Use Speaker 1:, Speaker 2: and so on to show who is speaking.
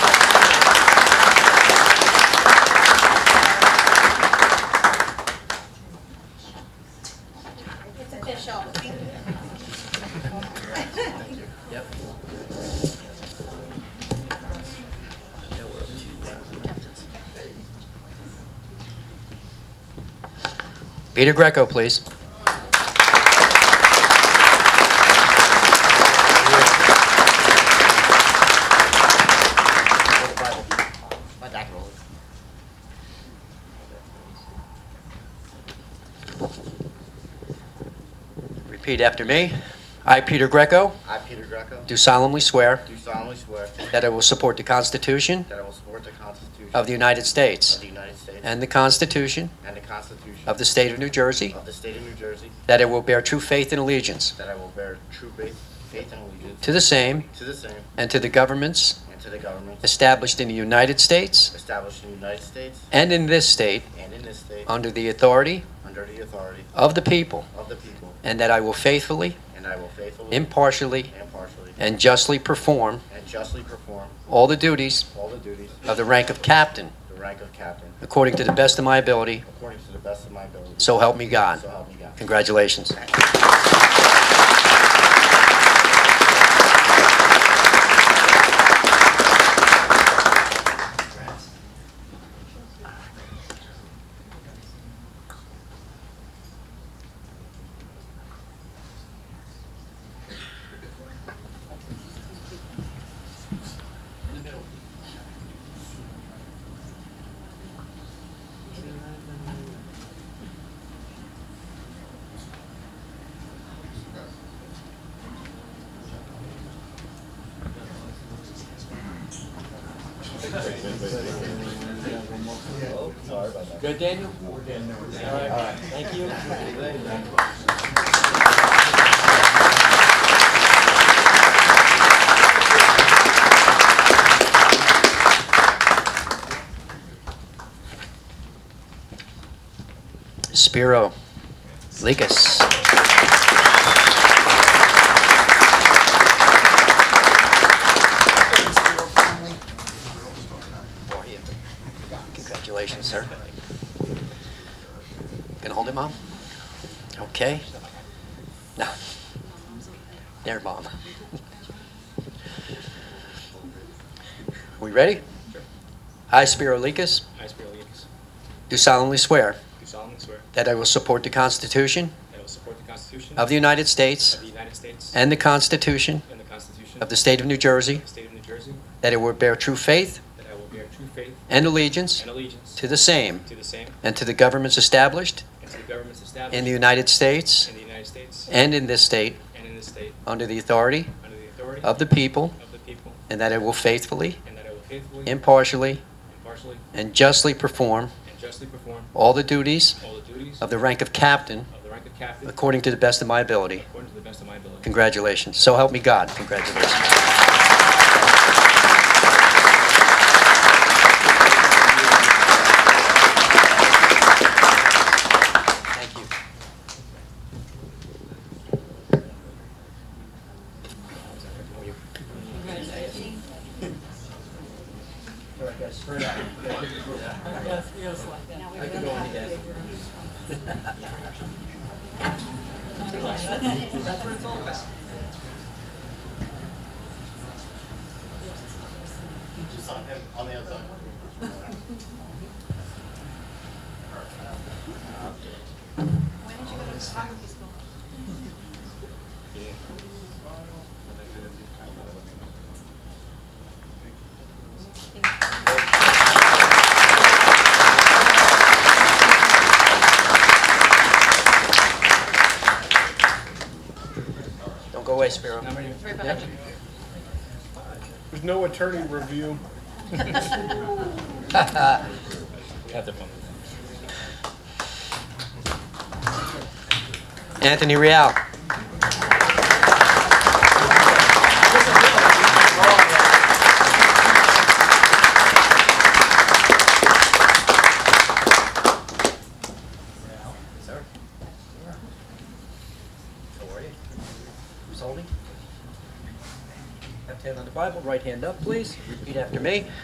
Speaker 1: Ada Greco, please. Repeat after me. I, Peter Greco,
Speaker 2: I, Peter Greco,
Speaker 1: do solemnly swear
Speaker 2: do solemnly swear
Speaker 1: that I will support the Constitution
Speaker 2: that I will support the Constitution
Speaker 1: of the United
Speaker 2: of
Speaker 1: States
Speaker 2: the United States
Speaker 1: and the Constitution
Speaker 2: and the Constitution
Speaker 1: of the State of New Jersey,
Speaker 2: of the State of New Jersey,
Speaker 1: that I will bear true faith and allegiance
Speaker 2: that I will bear true faith faith and allegiance
Speaker 1: to the same
Speaker 2: to the same
Speaker 1: and to the governments
Speaker 2: and to the government
Speaker 1: established in the United States
Speaker 2: established in the United States
Speaker 1: and in this state
Speaker 2: and in this state
Speaker 1: under the authority
Speaker 2: under the authority
Speaker 1: of the people,
Speaker 2: of the people,
Speaker 1: and that I will faithfully,
Speaker 2: and I will faithfully
Speaker 1: impartially,
Speaker 2: and partially
Speaker 1: and justly perform
Speaker 2: and justly perform
Speaker 1: all the duties
Speaker 2: all the duties
Speaker 1: of the rank of captain
Speaker 2: the rank of captain
Speaker 1: according to the best of my ability,
Speaker 2: according to the best of my ability.
Speaker 1: so help me God.
Speaker 2: So help me God.
Speaker 1: Congratulations. Good, Daniel? Thank you. Spiro Lakis. Congratulations, sir. Gonna hold it, Mom? Okay. No. There, Mom. We ready? I, Spiro Lekas,
Speaker 3: I, Spiro Levis,
Speaker 1: do solemnly swear
Speaker 3: do solemnly swear
Speaker 1: that I will support the Constitution
Speaker 3: that I will support the Constitution
Speaker 1: of the United States
Speaker 3: of the United States
Speaker 1: and the Constitution
Speaker 3: and the Constitution
Speaker 1: of the State of New Jersey,
Speaker 3: of the State of New Jersey,
Speaker 1: that I will bear true faith
Speaker 3: that I will bear true faith
Speaker 1: and allegiance
Speaker 3: and allegiance
Speaker 1: to the same
Speaker 3: to the same
Speaker 1: and to the governments established
Speaker 3: and to the governments established
Speaker 1: in the United States
Speaker 3: in the United States
Speaker 1: and in this state
Speaker 3: and in this state
Speaker 1: under the authority
Speaker 3: under the authority
Speaker 1: of the people,
Speaker 3: of the people,
Speaker 1: and that I will faithfully,
Speaker 3: and that I will faithfully,
Speaker 1: impartially,
Speaker 3: impartially,
Speaker 1: and justly perform
Speaker 3: and justly perform
Speaker 1: all the duties
Speaker 3: all the duties
Speaker 1: of
Speaker 3: of
Speaker 1: the rank of captain
Speaker 3: the rank of captain
Speaker 1: according to the best of my ability.
Speaker 3: according to the best of my ability.
Speaker 1: Congratulations. So help me God. Congratulations. Thank you. Don't go away, Spiro.
Speaker 4: There's no attorney review.
Speaker 3: Have the fun with that.
Speaker 1: Anthony Real. Who's holding? Left hand on the Bible, right hand up, please. Repeat after me.